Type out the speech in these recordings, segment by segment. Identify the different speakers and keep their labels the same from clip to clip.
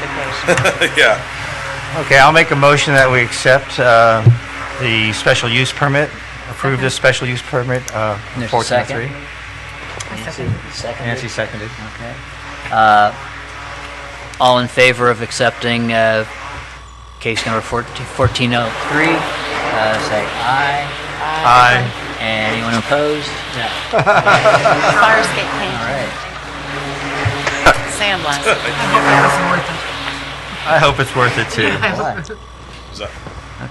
Speaker 1: modification.
Speaker 2: Yeah.
Speaker 3: Okay, I'll make a motion that we accept uh, the special use permit, approve this special use permit, uh,
Speaker 4: There's a
Speaker 3: 1403.
Speaker 4: second? Nancy, seconded.
Speaker 3: Nancy seconded.
Speaker 4: Okay. Uh, All in favor of accepting uh, case number 14- 1403, uh, say aye.
Speaker 3: Aye.
Speaker 4: And Anyone opposed? No.
Speaker 1: Fire escape
Speaker 4: All
Speaker 1: paint,
Speaker 4: right.
Speaker 1: sandblast.
Speaker 3: I hope it's worth it, too.
Speaker 4: What?
Speaker 2: Is that-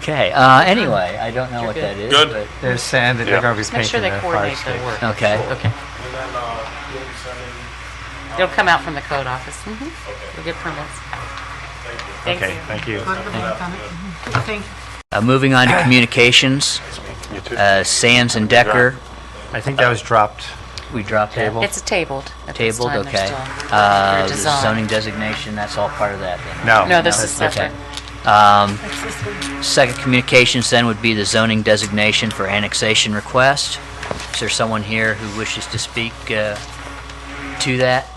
Speaker 4: Okay, uh, anyway, I don't know what that is.
Speaker 2: Good.
Speaker 4: but-
Speaker 3: There's sand that they're
Speaker 2: Yeah.
Speaker 3: going to be
Speaker 1: Make sure
Speaker 3: painting
Speaker 1: they
Speaker 3: the fire
Speaker 1: coordinate
Speaker 3: escape.
Speaker 1: their work.
Speaker 4: Okay.
Speaker 1: Okay. uh, It'll come out from the code office. Mhm. You'll get permits. Thank
Speaker 3: Okay,
Speaker 1: you.
Speaker 3: thank you.
Speaker 4: Uh, Moving on to communications,
Speaker 2: You too.
Speaker 4: uh, Sands and Decker,
Speaker 3: I think that was dropped.
Speaker 4: we dropped that.
Speaker 3: Table.
Speaker 1: It's tabled at this
Speaker 4: Tabled,
Speaker 1: time. They're
Speaker 4: okay.
Speaker 1: still-
Speaker 4: Uh,
Speaker 1: they're
Speaker 4: the
Speaker 1: dissolved.
Speaker 4: Zoning designation, that's all part of that then?
Speaker 3: No.
Speaker 1: No, this is
Speaker 3: Okay.
Speaker 1: separate.
Speaker 4: Um, Second communications then would be the zoning designation for annexation request. Is there someone here who wishes to speak uh, to that?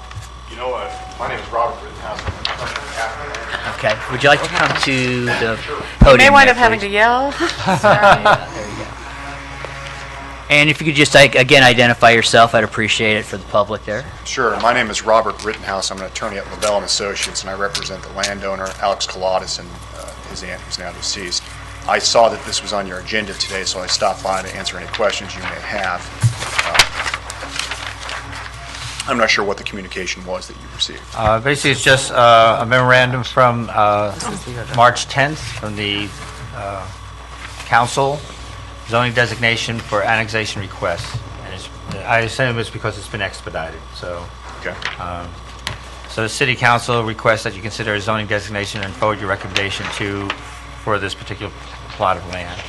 Speaker 5: You know what? My name is Robert Rittenhouse. I'm a professional athlete.
Speaker 4: Okay, would you like to come to the podium?
Speaker 1: You may wind
Speaker 4: there,
Speaker 1: up having to
Speaker 4: please?
Speaker 1: yell.
Speaker 4: Yeah, there you go. And if you could just, like, again, identify yourself, I'd appreciate it for the public there.
Speaker 5: Sure. My name is Robert Rittenhouse. I'm an attorney at Lavelle and Associates, and I represent the landowner, Alex Colodis, and uh, his aunt, who's now deceased. I saw that this was on your agenda today, so I stopped by to answer any questions you may have. Uh, I'm not sure what the communication was that you received.
Speaker 3: Uh, Basically, it's just uh, a memorandum from uh, March 10th from the uh, council, zoning designation for annexation requests. And it's- I assume it's because it's been expedited, so.
Speaker 5: Okay?
Speaker 4: uh,
Speaker 3: So the city council requests that you consider a zoning designation and forward your recommendation to, for this particular plot of land.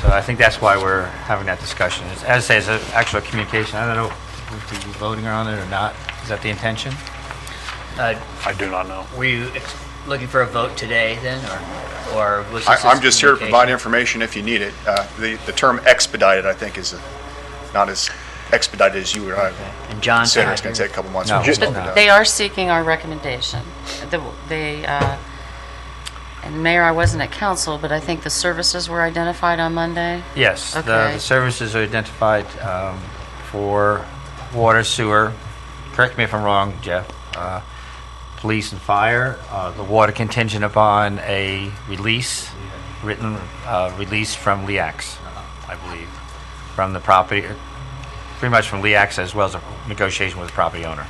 Speaker 3: So I think that's why we're having that discussion. It's- As I say, it's an actual communication. I don't know if we're voting on it or not. Is that the intention?
Speaker 4: Uh,
Speaker 2: I do not know.
Speaker 4: Were you ex- looking for a vote today then, or or was
Speaker 5: I-
Speaker 4: this?
Speaker 5: I'm just here to provide
Speaker 4: communication?
Speaker 5: information if you need it. Uh, The the term expedited, I think, is uh, not as expedited as you or I
Speaker 4: And John?
Speaker 5: said. It's going to take a couple months.
Speaker 3: No.
Speaker 5: for us to
Speaker 3: But
Speaker 5: look it up.
Speaker 1: They are seeking our recommendation. The- They, uh, and Mayor, I wasn't at council, but I think the services were identified on Monday.
Speaker 3: Yes, the
Speaker 1: Okay.
Speaker 3: the services are identified um, for water, sewer, correct me if I'm wrong, Jeff, uh, police and fire, uh, the water contingent upon a release, written uh, release from LEAX, I believe, from the property, uh, pretty much from LEAX as well as a negotiation with the property owner.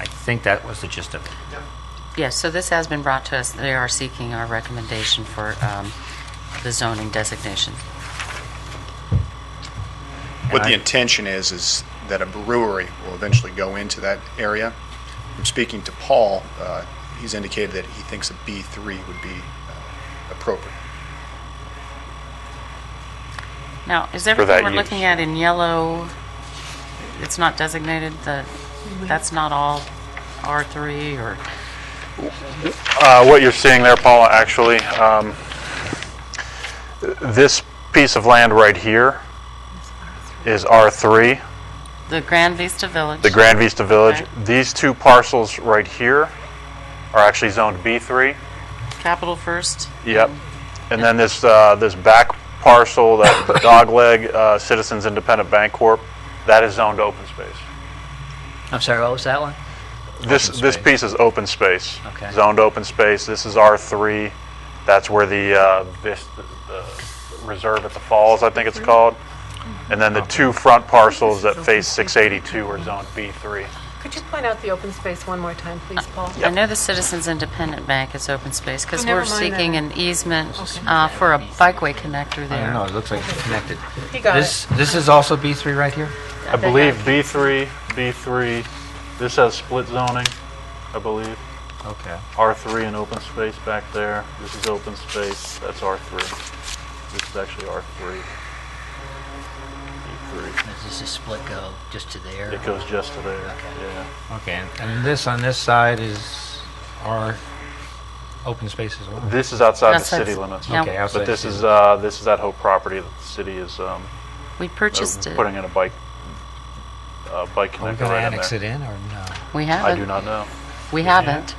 Speaker 3: I think that was the gist of it.
Speaker 1: Yes, so this has been brought to us. They are seeking our recommendation for um, the zoning designation.
Speaker 5: What
Speaker 3: I-
Speaker 5: the intention is, is that a brewery will eventually go into that area. From speaking to Paul, uh, he's indicated that he thinks a B3 would be uh, appropriate.
Speaker 1: Now, is
Speaker 2: that
Speaker 1: everything we're
Speaker 2: use.
Speaker 1: looking at in yellow, it's not designated, the, that's not all R3 or,
Speaker 2: Uh, what you're seeing there, Paula, actually, um, this piece of land right here is R3,
Speaker 1: the Grand Vista Village?
Speaker 2: the Grand Vista Village.
Speaker 1: Okay.
Speaker 2: These two parcels right here are actually zoned B3.
Speaker 1: Capital First?
Speaker 2: Yep. And then this, uh, this back parcel, that the dogleg uh, Citizens Independent Bank Corp., that is zoned open space.
Speaker 4: I'm sorry, what was that one?
Speaker 2: This,
Speaker 4: Open
Speaker 2: this
Speaker 4: space.
Speaker 2: piece is open space.
Speaker 4: Okay.
Speaker 2: Zoned open space. This is R3. That's where the, uh, this, the reserve at the falls, I think it's called. And then the two front parcels that face 682 are zoned B3.
Speaker 6: Could you point out the open space one more time, please, Paul?
Speaker 1: I know the Citizens Independent Bank is open space, because
Speaker 6: Oh, never
Speaker 1: we're
Speaker 6: mind that.
Speaker 1: seeking an easement uh, for a bikeway connector
Speaker 3: I don't know,
Speaker 1: there.
Speaker 3: it looks like it's connected.
Speaker 6: He got
Speaker 3: This,
Speaker 6: it.
Speaker 3: this is also B3 right here?
Speaker 2: I believe B3, B3, this has split zoning, I believe.
Speaker 3: Okay.
Speaker 2: R3 and open space back there. This is open space. That's R3. This is actually R3. B3.
Speaker 4: Does this is split go just to there?
Speaker 2: It goes just to there.
Speaker 4: Okay.
Speaker 2: Yeah.
Speaker 3: Okay, and- and this on this side is our open space as well?
Speaker 2: This is outside the
Speaker 1: Outside
Speaker 2: city
Speaker 1: the-
Speaker 2: limits.
Speaker 1: yeah.
Speaker 3: Okay, outside
Speaker 2: But this
Speaker 3: city.
Speaker 2: is, uh, this is that whole property that the city is, um,
Speaker 1: We
Speaker 2: they're
Speaker 1: purchased it.
Speaker 2: putting in a bike, uh, bike
Speaker 3: Are we going
Speaker 2: connector
Speaker 3: to
Speaker 2: right in
Speaker 3: annex it
Speaker 2: there.
Speaker 3: in or no?
Speaker 1: We
Speaker 2: I do
Speaker 1: haven't,
Speaker 2: not know.
Speaker 1: we haven't.